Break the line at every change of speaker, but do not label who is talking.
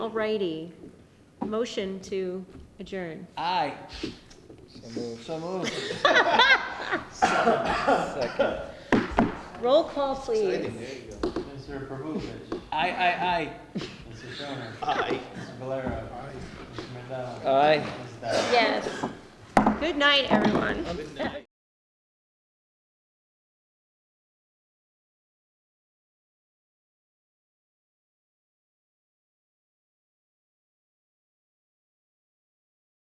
Alrighty, motion to adjourn.
Aye. So moved. Second.
Roll call, please.
Mr. Pervukovich,
Aye, aye,
Mr. Stoner. Mr. Valero. Mr. McDonald.
aye. Aye.
Ms. Dowd.
Yes. Good night, everyone.
Good night.